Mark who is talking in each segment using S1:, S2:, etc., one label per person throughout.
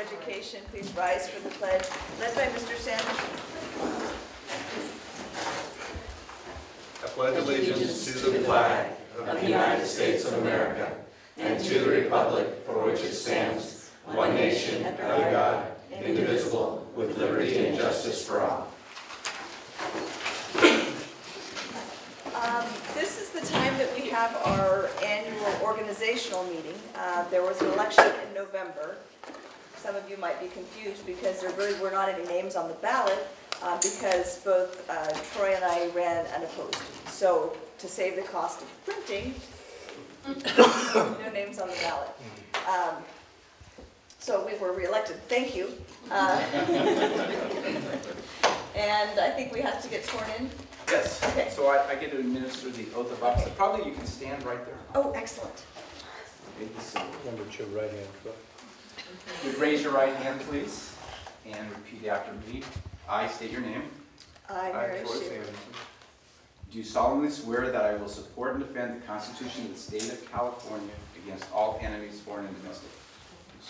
S1: Education, please rise for the pledge, led by Mr. Sanderson.
S2: I pledge allegiance to the flag of the United States of America and to the republic for which it stands, one nation, under God, indivisible, with liberty and justice for all.
S1: Um, This is the time that we have our annual organizational meeting. Uh, There was an election in November. Some of you might be confused because there really were not any names on the ballot uh, because both uh, Troy and I ran unopposed. So to save the cost of printing, no names on the ballot. Um, So we were reelected, thank you. Uh, And I think we have to get sworn in.
S3: Yes,
S1: Okay.
S3: so I, I get to administer the oath of office. Probably you can stand right there.
S1: Oh, excellent.
S3: Make the seal.
S4: Number two, right hand, Troy.
S3: If you'd raise your right hand, please, and repeat after me. I state your name.
S1: I, Mary
S3: Troy
S1: Schuler,
S3: Sanderson, Do solemnly swear that I will support and defend the Constitution of the State of California against all enemies, foreign and domestic.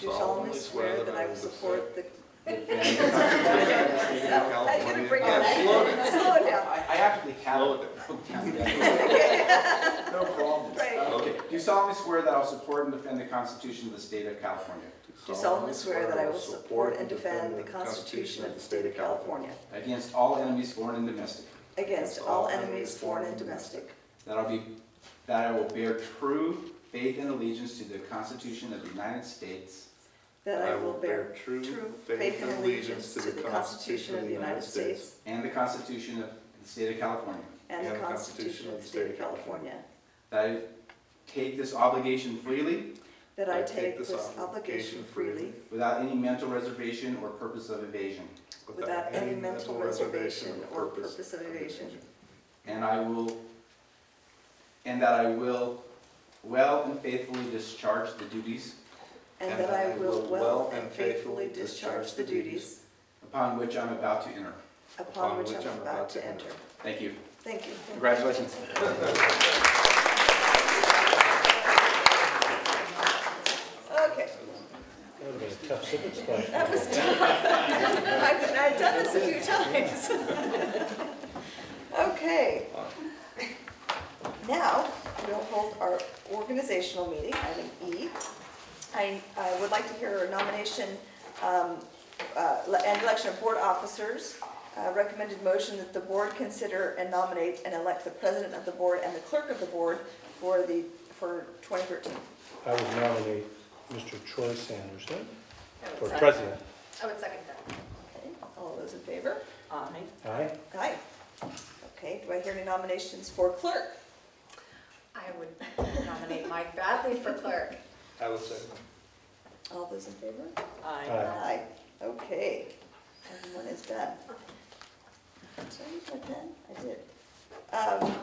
S1: do solemnly swear that I will support the.
S3: Defend the Constitution of the State of
S1: I'm
S3: California.
S1: gonna bring
S3: Yeah,
S1: on
S3: slow down.
S1: that. Slow it down.
S3: I I actually have
S2: Slow
S3: it broke down. No problem.
S1: Right.
S3: Okay, do solemnly swear that I will support and defend the Constitution of the State of California.
S1: Do solemnly swear that I will support and defend the Constitution of the State of California
S3: Against all enemies, foreign and domestic.
S1: against all enemies, foreign and domestic,
S3: That I'll be, that I will bear true faith and allegiance to the Constitution of the United States
S1: that I will bear true faith and allegiance to the Constitution of the United States
S3: and the Constitution of the State of California.
S1: and the Constitution of the State of California,
S3: That I take this obligation freely
S1: that I take this obligation freely
S3: without any mental reservation or purpose of evasion.
S1: without any mental reservation or purpose of evasion,
S3: And I will, and that I will well and faithfully discharge the duties
S1: and that I will well and faithfully discharge the duties
S3: upon which I'm about to enter.
S1: upon which I'm about to enter.
S3: Thank you.
S1: Thank you.
S3: Congratulations.
S1: Okay,
S4: That would have been a tough sentence question.
S1: that was tough. I've, I've done this a few times. Okay. Now, we'll hold our organizational meeting, item E. I, I would like to hear a nomination um, uh, and election of board officers. Uh, Recommended motion that the board consider and nominate and elect the president of the board and the clerk of the board for the, for 2013.
S4: I would nominate Mr. Troy Sanderson for president.
S5: I would second that.
S1: Okay, All those in favor?
S6: Aye.
S4: Aye?
S1: Aye. Okay, do I hear any nominations for clerk?
S5: I would nominate Mike Bradley for clerk.
S4: I would say.
S1: All those in favor?
S6: Aye.
S4: Aye.
S1: Aye. Okay, everyone is done. Did I use my pen?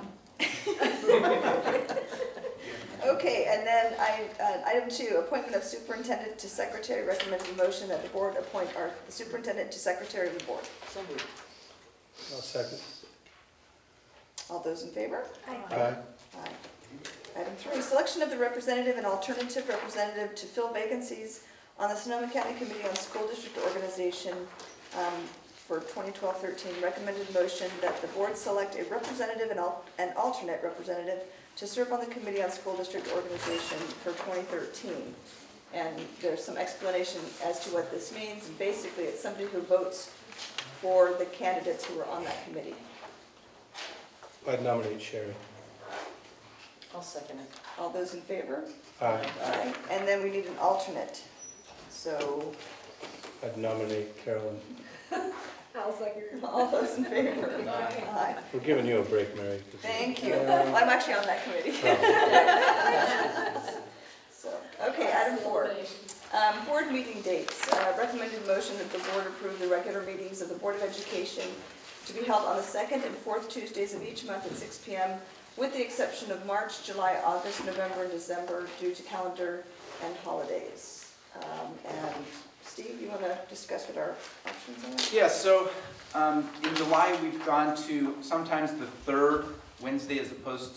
S1: I did. Um, Okay, and then I, uh, item two, appointment of superintendent to secretary, recommended motion that the board appoint our superintendent to secretary of the board.
S6: So moved.
S4: I'll second.
S1: All those in favor?
S4: Aye.
S1: Aye. Item three, selection of the representative and alternative representative to fill vacancies on the Sonoma County Committee on School District Organization um, for 2012-13. Recommended motion that the board select a representative and al- an alternate representative to serve on the Committee on School District Organization for 2013. And there's some explanation as to what this means. Basically, it's somebody who votes for the candidates who are on that committee.
S4: I'd nominate Sherry.
S6: I'll second it.
S1: All those in favor?
S4: Aye.
S1: Aye. And then we need an alternate. So,
S4: I'd nominate Carolyn.
S5: I'll second.
S1: all those in favor? Aye.
S4: We're giving you a break, Mary. 'cause-
S1: Thank you. I'm actually on that committee. So, okay, item four. Um, Board meeting dates. Uh, Recommended motion that the board approve the regular meetings of the Board of Education to be held on the second and fourth Tuesdays of each month at 6 PM, with the exception of March, July, August, November, and December due to calendar and holidays. Um, And Steve, you want to discuss what our options
S3: Yeah, so um, in July, we've gone to sometimes the third Wednesday as opposed